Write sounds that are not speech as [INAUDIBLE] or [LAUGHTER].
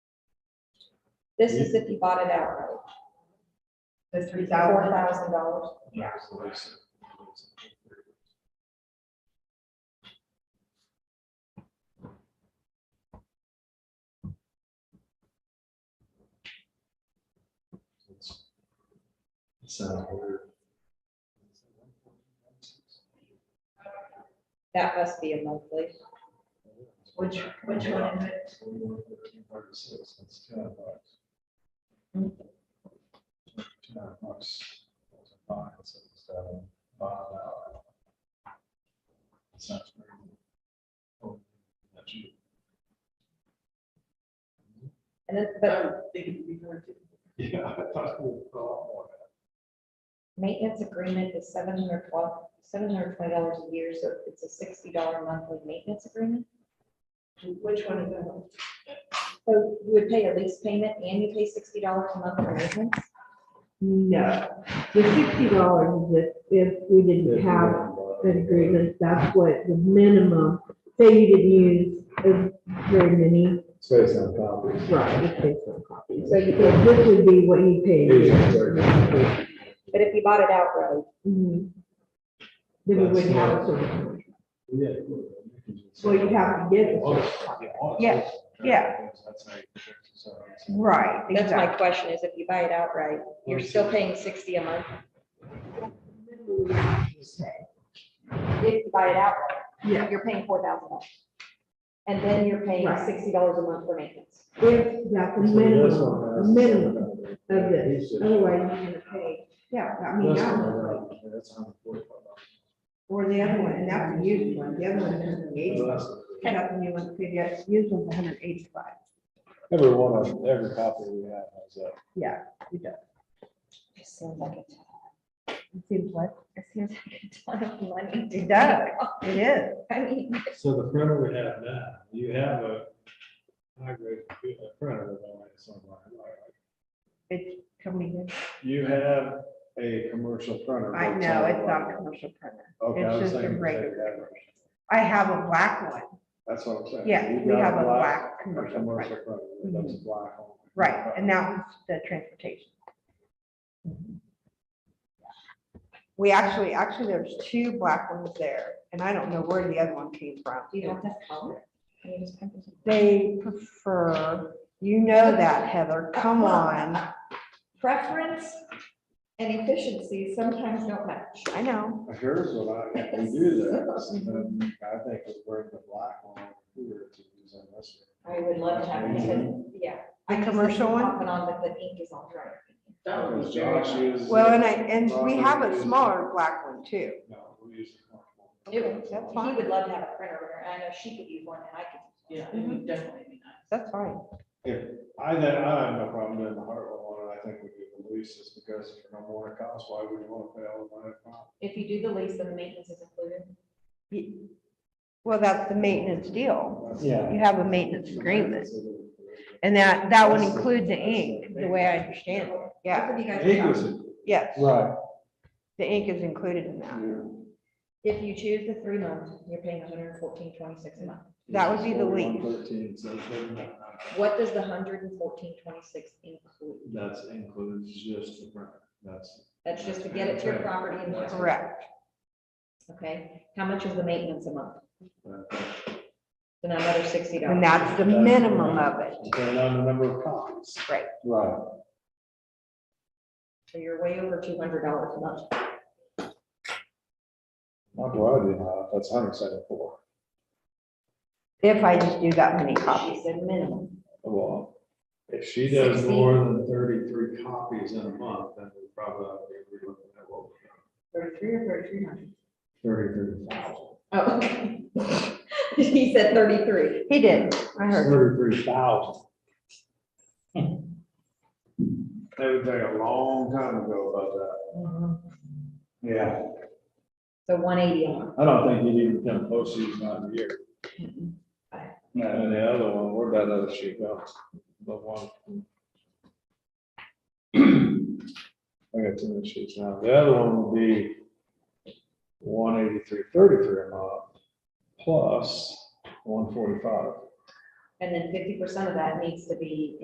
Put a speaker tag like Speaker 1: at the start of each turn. Speaker 1: This is if you bought it outright,
Speaker 2: The three
Speaker 1: four
Speaker 2: thousand,
Speaker 1: thousand dollars.
Speaker 2: Yeah.
Speaker 3: So there's- It's- It's, uh, we're-
Speaker 1: That must be a monthly.
Speaker 2: which, which one is it?
Speaker 3: Forty-one, thirteen, thirty-six, that's ten bucks. Ten bucks. that's a Five, six, seven, five hour. Sounds pretty. good. Oh, that's you.
Speaker 1: And then, but
Speaker 3: Yeah, I thought it was a lot more.
Speaker 1: maintenance agreement is seven hundred twelve, seven hundred twenty dollars a year, so it's a sixty dollar monthly maintenance agreement.
Speaker 2: Which one is it?
Speaker 1: So you would pay a lease payment and you pay sixty dollars a month for maintenance?
Speaker 4: No, the sixty dollars is if, if we didn't have an agreement, that's what the minimum, say you didn't use as very many,
Speaker 3: Space on copies.
Speaker 4: right, it's based on copies.
Speaker 1: So you
Speaker 4: So
Speaker 1: could,
Speaker 4: this would be what you pay. a year.
Speaker 1: but if you bought it outright,
Speaker 4: Mhm. Then we wouldn't have a service contract. Well, you'd have to get a service contract.
Speaker 2: Yeah, yeah.
Speaker 3: That's how you fix it, so.
Speaker 2: Right,
Speaker 1: that's my question is if you buy it outright, you're still paying sixty a month if you buy it outright.
Speaker 4: Yeah,
Speaker 1: you're paying four thousand dollars. And then you're paying
Speaker 4: Right.
Speaker 1: sixty dollars a month for maintenance.
Speaker 4: if that's a minimum, a minimum of this, otherwise you're gonna pay, yeah, I mean, I was like, Or the other one, and that's a used one, the other one is hundred and eighty-five. And that's the new one, the yes, used one's hundred and eighty-five,
Speaker 3: Every one of, them, every copy we have has a.
Speaker 4: yeah, it does.
Speaker 1: Just seems like a ton-
Speaker 4: It seems like,
Speaker 1: it seems like a ton of money.
Speaker 2: [LAUGHS] It does. it is.
Speaker 1: I mean,
Speaker 3: So the printer we have now, you have a high grade computer printer that only is online, right?
Speaker 2: It's coming
Speaker 3: You have a commercial printer.
Speaker 2: in. I
Speaker 3: that's
Speaker 2: know, it's not a
Speaker 3: online.
Speaker 2: commercial printer.
Speaker 3: Okay, I
Speaker 2: It's
Speaker 3: was
Speaker 2: just a
Speaker 3: thinking, take
Speaker 2: regular.
Speaker 3: that version.
Speaker 2: I have a black one.
Speaker 3: That's what I'm saying.
Speaker 2: Yeah,
Speaker 3: You've
Speaker 2: we
Speaker 3: got
Speaker 2: have a black commercial
Speaker 3: Commercial
Speaker 2: printer.
Speaker 3: printer, that's black. on-
Speaker 2: Right, and that was the transportation. We actually, actually, there's two black ones there, and I don't know where the other one came from.
Speaker 1: you don't have color. I mean, it's kind of-
Speaker 2: They prefer, you know that, Heather, come on.
Speaker 1: Preference and efficiency sometimes don't match.
Speaker 2: I know.
Speaker 3: Here's what I, if we do
Speaker 2: [LAUGHS]
Speaker 3: that, so
Speaker 2: Mm-hmm.
Speaker 3: then I think it's worth the black one here to use on this.
Speaker 1: I would love to have it, but, yeah.
Speaker 2: The commercial one?
Speaker 1: Off and on, but the ink is on dry.
Speaker 3: Because Josh uses
Speaker 2: Well, and I,
Speaker 3: it.
Speaker 2: and we have a smaller black one too.
Speaker 3: No, we use the black one.
Speaker 1: It would-
Speaker 2: That's
Speaker 1: He
Speaker 2: fine.
Speaker 1: would love to have a printer, and I know she could use one and I could.
Speaker 5: Yeah, it
Speaker 2: Mm-hmm.
Speaker 5: would definitely be nice.
Speaker 2: That's fine.
Speaker 3: If, I, then I have no problem doing the Hartwell one, I think we do the lease just because if you're no more it costs, why would you want to pay all the money? upfront?
Speaker 1: If you do the lease, then the maintenance is included.
Speaker 2: Ye- Well, that's the maintenance deal.
Speaker 3: That's-
Speaker 2: You have a maintenance agreement. And that, that would include the ink, the way I understand it. Yeah,
Speaker 1: Both of you guys
Speaker 3: Ink
Speaker 1: are-
Speaker 3: was,
Speaker 2: yes,
Speaker 3: right.
Speaker 2: the ink is included in that.
Speaker 1: If you choose the three months, you're paying 114.26 a month.
Speaker 2: That would be the lease.
Speaker 3: 41, 13, so it's not-
Speaker 1: What does the hundred and fourteen twenty-six include?
Speaker 3: That's includes just the rent, that's.
Speaker 1: That's just to get it to your property and house,
Speaker 2: Correct.
Speaker 1: okay? How much is the maintenance a month?
Speaker 3: Depending
Speaker 1: Then another sixty dollars.
Speaker 2: And that's the minimum of it.
Speaker 3: on the number of copies.
Speaker 2: Right.
Speaker 3: Right.
Speaker 1: So you're way over two hundred dollars a month.
Speaker 3: Not what I do now, that's hundred seventy-four.
Speaker 2: If I just do that many copies.
Speaker 1: She said minimum.
Speaker 3: Well, if she does
Speaker 1: Sixty.
Speaker 3: more than thirty-three copies in a month, then we probably ought to be looking at what we got.
Speaker 1: Thirty-three or thirty-three hundred?
Speaker 3: Thirty-three thousand.
Speaker 1: Oh, okay. [LAUGHS] He said thirty-three.
Speaker 2: He did, I heard.
Speaker 3: Thirty-three thousand. That would take a long time to go about that.
Speaker 2: Mm-hmm.
Speaker 3: Yeah.
Speaker 1: So one eighty a month.
Speaker 3: I don't think you even come close to using that in a year. And the other one, where'd that other sheet go? The one. I got two more sheets now. The other one would be one eighty-three thirty-three a month plus one forty-five.
Speaker 1: And then fifty percent of that needs to be